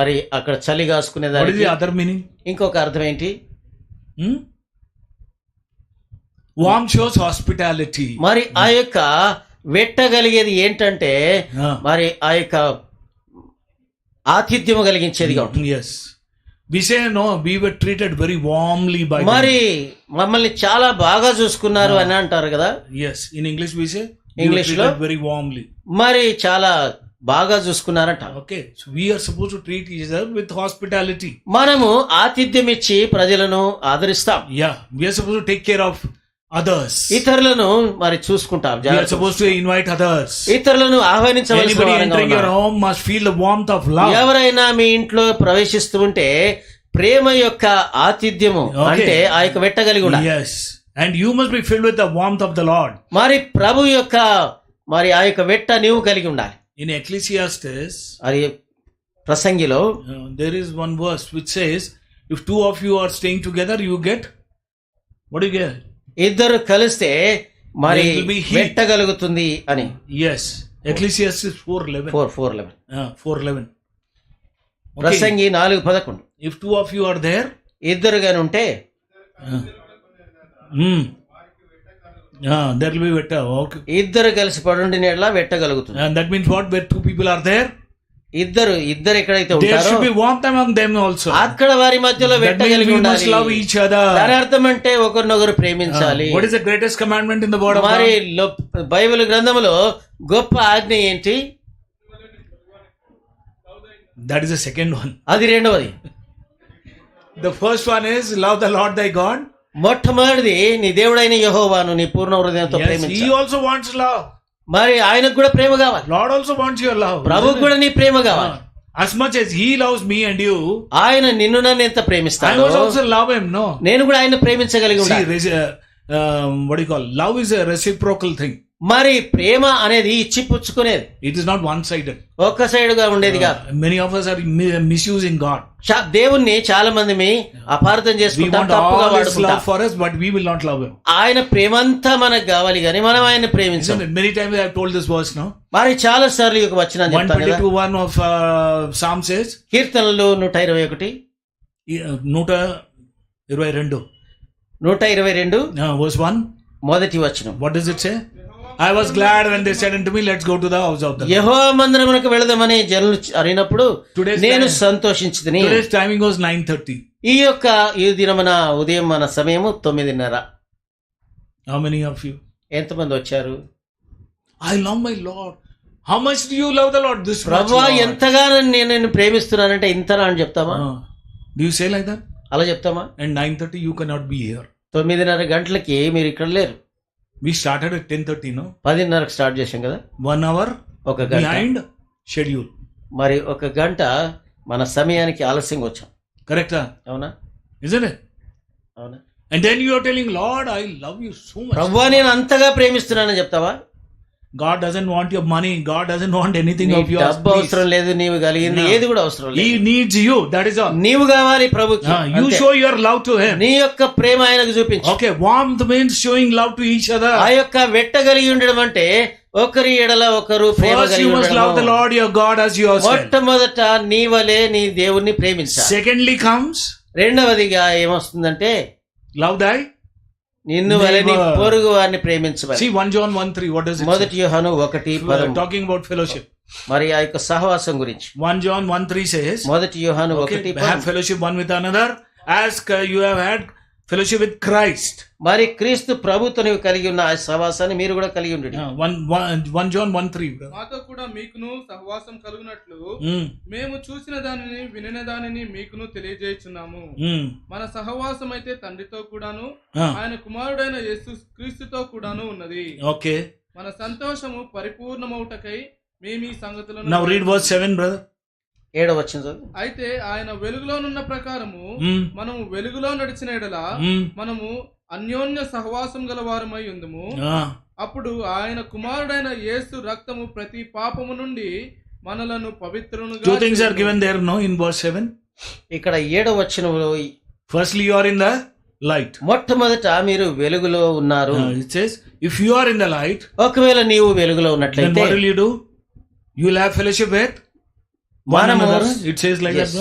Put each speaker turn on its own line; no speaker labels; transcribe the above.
మరి అక్కడ చలి కాసుకునే
What is
దానికి
the other meaning?
ఇంకొక అర్థం ఏంటి
Hmm? Warm shows hospitality.
మరి ఆ యొక్క వెట్టగలిగేది ఏంటంటే
Ah,
మరి ఆ యొక్క ఆతిథ్యం కలిగించేదిగా ఉంటుంది
Hmm, yes. We say no, we were treated very warmly by them.
మరి మమ్మల్ని చాలా బాగా చూసుకున్నారు అని అంటారు కదా
Yes. In English we say we
English
were
లో?
treated very warmly.
మరి చాలా బాగా చూసుకున్నారంట
Okay. So we are supposed to treat each other with hospitality.
మనము ఆతిథ్యం ఇచ్చి ప్రజలను ఆదరిస్తాం
Yeah. We are supposed to take care of others.
ఇతరులను మరి చూసుకుంటాం
We are
జాగ్రత్త.
supposed to invite others.
ఇతరులను ఆహ్వానించవలసిన
Anybody
వారంగా
entering your
ఉన్నాం.
home must feel the warmth of love.
ఎవరైనా మీ ఇంట్లో ప్రవేశిస్తూ ఉంటే ప్రేమ యొక్క ఆతిథ్యము
Okay.
అంటే ఆ యొక్క వెట్టగలిగి ఉండాలి
Yes. And you must be filled with the warmth of the Lord.
మరి ప్రభు యొక్క మరి ఆ యొక్క వెట్ట నీవు కలిగి ఉండాలి
In Ecclesiastes,
అది ప్రసంగిలో
uh, there is one verse which says, if two of you are staying together, you get, what do you get?
ఇద్దరు కలిస్తే మరి
There will be heat.
వెట్ట కలుగుతుంది అని
Yes. Ecclesiastes 4.11.
Four four eleven
Uh, 4.11. Okay.
ప్రసంగి నాలుగు పదకొండు
If two of you are there,
ఇద్దరుగాని ఉంటే
uh, hmm. Ah, there will be better. Okay.
ఇద్దరు కలిసి పడుండి నీళ్ళ వెట్టగలుగుతుంది
And that means what? Where two people are there,
ఇద్దరు ఇద్దరు ఎక్కడైతే
there
ఉంటారో
should be warmth among them also.
అక్కడ వారి మధ్యలో
That means
వెట్టగలిగి
we must
ఉండాలి
love each other. Uh,
దాని అర్థం అంటే ఒకరినొకరు ప్రేమించాలి
What is the greatest commandment in the word of God?
మరి లో- బైబిల్ గ్రంథములో గొప్ప ఆజ్ఞ ఏంటి
That is the second one.
అది రెండవది
The first one is love the Lord thy God.
మొట్టమొదటిది నీ దేవుడైన యెహోవాను నీ పూర్ణ హృదయంతో
Yes,
ప్రేమించు
he also wants love.
మరి ఆయనకు కూడా ప్రేమ కావాలి
Lord also wants your love.
ప్రభుకు కూడా నీ ప్రేమ కావాలి
Ah, As much as he loves me and you,
ఆయన నిన్ను నన్ను ఎంత
I
ప్రేమిస్తాడో
must also love him. No.
నేను కూడా ఆయన ప్రేమించగలిగి
See,
ఉండాలి
reci- uh, um, what do you call? Love is a reciprocal thing.
మరి ప్రేమ అనేది ఇచ్చి పుచ్చుకునేది
It is not one-sided.
ఒక్క సైడ్ గా ఉండేది
Ah.
కాదు
Many of us are mi- misusing God.
చా- దేవుణ్ణి చాలా మంది మీ అపార్థం
We
చేసుకుంటాం
want
తప్పుగా
all his
వాడుకుంటాం
love for us, but we will not love him.
ఆయన ప్రేమంతా మనకు కావాలి కానీ మనం ఆయన ప్రేమించాం
Isn't it? Many times I have told this verse now.
మరి చాలా సార్లు ఈ యొక్క వచనాన్ని
One
చెప్తాను కదా
twenty-two one of uh, Psalm says, uh,
కీర్తనలు నూట ఇరవై ఒకటి
ఈ- నూట ఇరవై రెండు
నూట ఇరవై రెండు
వర్స్ వన్
మొదటి వచనం
what does it say I was glad when they said to me let's go to the house of the
యహో మందిరమునకు వెళదామని జనులు అడిగినప్పుడు
Today's
నేను
time-
సంతోషించదని
today's timing was nine thirty
ఈ యొక్క ఈ దినమున ఉదయం మన సమయము తొమ్మిదిన్నర
హౌ మెనీ ఆఫ్ యూ
ఎంతమంది వచ్చారు
I love my lord how much you love the lord this
ప్రభా ఎంతగానో నేను నిన్ను ప్రేమిస్తున్నానంటే ఇంతనా అని చెప్తామా
do you say like that
అలా చెప్తామా
and nine thirty you cannot be here
తొమ్మిదిన్నర గంటలకి మీరు ఇక్కడ లేరు
we started at ten thirty no
పదిన్నరకు స్టార్ట్ చేశాం కదా
వన్ అవర్
ఒక గంట
బిహైండ్ షెడ్యూల్
మరి ఒక గంట మన సమయానికి ఆలస్యంగా వచ్చాం
కరెక్టా
అవునా
ఇజన్ ఇట్
అవునా
and then you are telling lord I love you so much
ప్రభువా నేను అంతగా ప్రేమిస్తున్నానని చెప్తావా
God doesn't want your money. God doesn't want anything
నీ
of yours.
డబ్బు
Please.
అవసరం లేదు నీవు కలిగింది ఏది కూడా అవసరం లేదు
He needs you. That is all.
నీవు కావాలి ప్రభుకి
Ah, you
అంతే.
show your love to Him.
నీ యొక్క ప్రేమ ఆయనకు చూపించు
Okay, warmth means showing love to each
ఆ
other.
యొక్క వెట్ట కలిగి ఉండడం అంటే ఒకరి ఎడల ఒకరు ప్రేమ
First,
కలిగి
you must love the
ఉండడము.
Lord your God as yourself.
మొట్టమొదట నీ వలే నీ దేవుణ్ణి ప్రేమించాలి
Secondly, comes
రెండవదిగా ఏమొస్తుందంటే
love thy.
నిన్ను వలె నీ
Neighbor.
పొరుగు వారిని ప్రేమించమని
See, 1 John 1 3. What does it
మొదటి యోహాను ఒకటి
say? We are
పదము
talking about fellowship.
మరి ఆ యొక్క సహవాసం గురించి
1 John 1 3 says,
మొదటి యోహాను ఒకటి
okay, Have
పదము.
fellowship one with another. As uh, you have had fellowship with Christ.
మరి క్రీస్తు ప్రభుతో నీవు కలిగి ఉన్న ఆ సహవాసాన్ని మీరు కూడా కలిగి ఉండండి
Ah, 1, 1, 1 John 1 3. brother.
మాతో కూడా మీకును సహవాసం కలుగునట్లు
Mm,
మేము చూసిన దానిని వినిన దానిని మీకును తెలియజేయుచున్నాము
mm.
మన సహవాసం అయితే తండ్రితో కూడాను
Ah.
ఆయన కుమారుడైన యేసు క్రీస్తుతో కూడాను ఉన్నది
Okay.
మన సంతోషము పరిపూర్ణమౌటకై మేము ఈ సంగతులను
Now read verse 7, brother.
ఏడవ వచ్చిన చదువు
అయితే ఆయన వెలుగులోనున్న ప్రకారము
Hmm.
మనము వెలుగులో నడిచిన ఎడలా
Hmm.
మనము అన్యోన్య సహవాసం గల వారమై ఉందము
Ah.
అప్పుడు ఆయన కుమారుడైన యేసు రక్తము ప్రతి పాపము నుండి మనలను
Two things are
పవిత్రునుగా
given there, no, in verse 7.
ఇక్కడ ఏడవ వచనంలో
Firstly, you are in the light.
మొట్టమొదట మీరు వెలుగులో ఉన్నారు
Ah, it says, if you are in the light,
ఒకవేళ నీవు వెలుగులో
then
ఉన్నట్లయితే
what will you do? You will have fellowship with one
మనము
another. It says like
Yes.
that. brother?